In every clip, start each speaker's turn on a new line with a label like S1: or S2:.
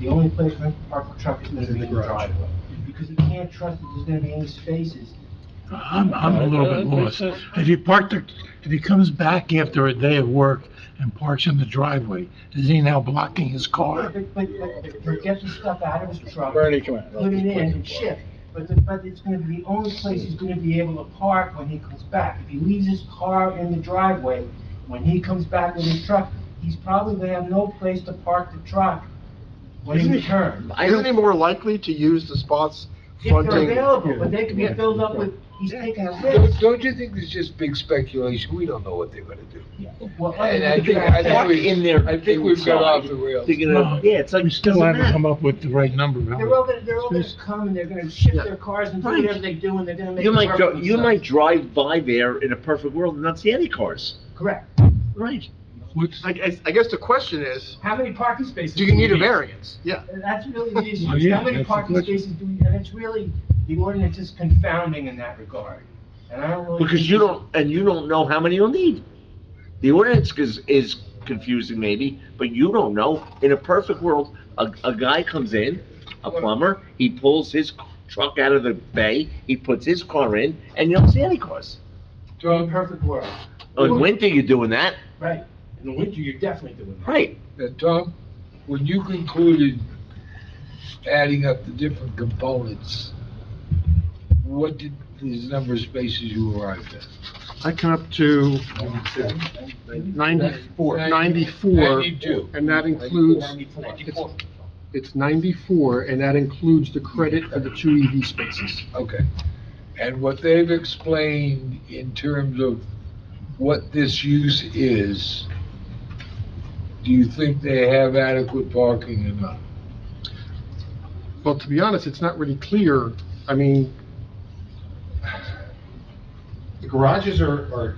S1: The only place I can park a truck is gonna
S2: Is in
S1: be
S2: the
S1: in the
S2: garage.
S1: driveway, because you can't trust that there's gonna be any spaces.
S3: I'm, I'm a little bit lost. If he parked the, if he comes back after a day of work and parks in the driveway, is he now blocking his car?
S1: But, but, but, but get the stuff out of his truck,
S2: Bernie, come
S1: put it in
S2: on.
S1: and shift. But the, but it's gonna be, the only place he's gonna be able to park when he comes back. If he leaves his car in the driveway, when he comes back with his truck, he's probably gonna have no place to park the truck when he
S2: Isn't he-
S1: returns.
S2: Isn't he more likely to use the spots
S1: If they're
S2: fronting?
S1: available, but they could be filled up with, he's taking a
S4: Don't-
S1: risk.
S4: Don't you think it's just big speculation? We don't know what they're gonna do.
S1: Well,
S4: And I think, I think we, I think we've got off the rails.
S3: No, We still haven't come up with the right number,
S1: They're all
S3: Howard.
S1: gonna, they're all gonna come and they're gonna shift their cars and do
S5: Right.
S1: whatever they do and they're gonna make.
S5: You
S1: it
S5: might,
S1: work
S5: dri-
S1: for
S5: you might
S1: themselves.
S5: drive by there in a perfect world and not see any cars.
S1: Correct.
S5: Right.
S3: What's,
S2: I, I- I guess the question is,
S1: How many parking spaces?
S2: do you need a
S1: variance?
S2: variance? Yeah.
S1: That's really the issue,
S3: Oh,
S1: is
S3: yeah,
S1: how many
S3: that's the
S1: parking
S3: question.
S1: spaces do we, and it's really, the ordinance is confounding in that regard. And I don't really.
S5: Because
S1: think
S5: you
S1: it's-
S5: don't, and you don't know how many you'll need. The ordinance is, is confusing maybe, but you don't know. In a perfect world, a, a guy comes in, a plumber, he pulls his truck out of the bay, he puts his car in, and you don't see any cars. Oh,
S1: In a perfect world,
S5: In winter, you're doing that,
S1: right, in the winter, you're definitely doing that.
S5: right?
S4: Now, Tom, when you concluded adding up the different components, what did these number of spaces you arrived at?
S6: I come up to
S4: Ninety-
S6: 94, 94,
S4: Ninety-two.
S6: and that includes,
S1: Ninety-four.
S6: it's 94, and that includes the credit for the two EV spaces.
S4: Okay. And what they've explained in terms of what this use is, do you think they have adequate parking or not?
S6: Well, to be honest, it's not really clear, I mean,
S7: The garages are, are,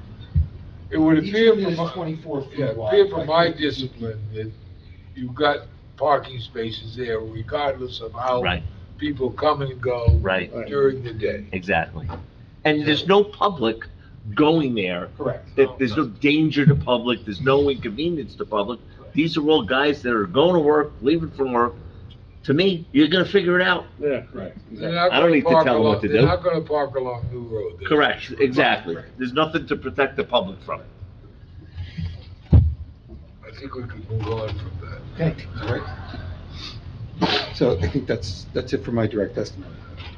S4: It would
S7: each
S4: appear
S7: of it
S4: from,
S7: is
S4: my-
S7: twenty-four
S4: yeah,
S7: feet
S4: it
S7: wide.
S4: appear from my
S7: Like,
S4: discipline that you've got parking spaces there regardless of how
S5: Right.
S4: people come and go
S5: Right.
S4: during the day.
S5: Exactly. And there's no public going there
S7: Correct.
S5: that there's no danger to public, there's no inconvenience to public. These are all guys that are going to work, leaving from work. To me, you're gonna figure it out.
S4: They're not
S5: I don't
S4: gonna
S5: need to
S4: park
S5: tell them what
S4: along-
S5: to
S4: They're
S5: do.
S4: not gonna park along New Road. They're-
S5: Correct, exactly. There's nothing to protect the public from it.
S4: I think we could move on from that.
S1: Okay,
S2: So I think that's, that's it for my direct estimate.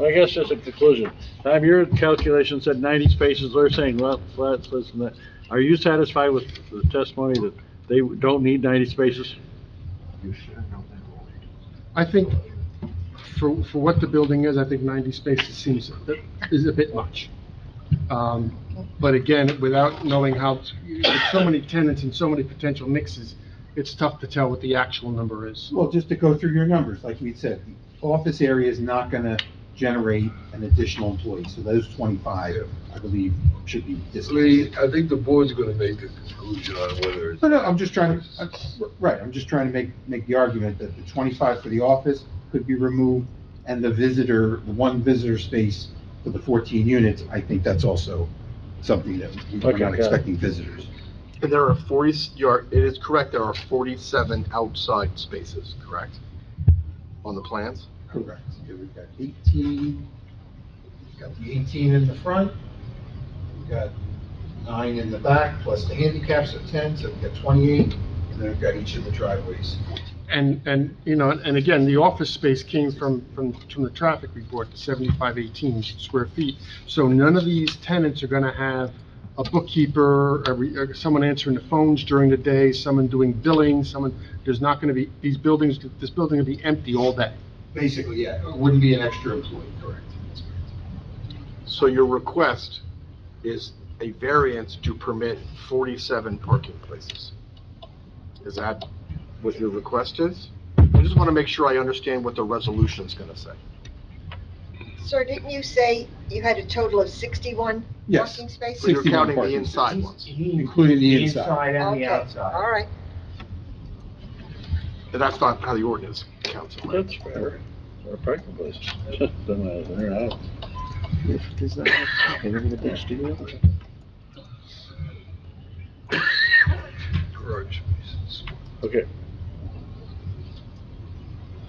S8: I guess that's a conclusion. Tom, your calculation said ninety spaces, they're saying, well, flats, this and that. Are you satisfied with the testimony that they don't need ninety spaces?
S6: I think for, for what the building is, I think 90 spaces seems, is a bit much. Um, But again, without knowing how, with so many tenants and so many potential mixes, it's tough to tell what the actual number is.
S2: Well, just to go through your numbers, like we said, the office area is not gonna generate an additional employee, so those twenty-five, I believe, should be
S4: Lee,
S2: discounted.
S4: I think the board's gonna make a conclusion on whether it's.
S2: No, no, I'm just trying to, I'm- right, I'm just trying to make, make the argument that the twenty-five for the office could be removed, and the visitor, the one visitor space for the fourteen units, I think that's also something that we're
S8: Okay, got
S2: not
S8: it.
S2: expecting visitors.
S9: And there are 40, you are, it is correct, there are 47 outside spaces, correct? On the plans?
S2: Correct. Yeah, We've got eighteen,
S7: We've got the eighteen in the front, we've got nine in the back, plus the handicaps are ten, so we've got twenty-eight, and then we've got each of the driveways.
S6: And, and, you know, and again, the office space came from, from, from the traffic report, the seventy-five eighteen square feet. So none of these tenants are gonna have a bookkeeper, a re- uh, someone answering the phones during the day, someone doing billing, someone, there's not gonna be, these buildings, this building will be empty all day.
S7: Basically, yeah, it wouldn't be an extra employee, correct? That's correct.
S9: So your request is a variance to permit 47 parking places? Is that what your request is? I just want to make sure I understand what the resolution's going to say.
S10: Sir, didn't you say you had a total of 61
S2: Yes.
S10: parking spaces?
S9: But you're
S2: 61
S9: counting the
S2: parking
S9: inside
S1: He's-
S9: ones.
S1: he-
S2: Including the inside.
S1: and the
S10: Okay, All
S1: outside.
S10: right.
S9: And That's not how the ordinance counts it.
S8: That's fair. Or parking places.
S4: Garage spaces.
S8: Okay,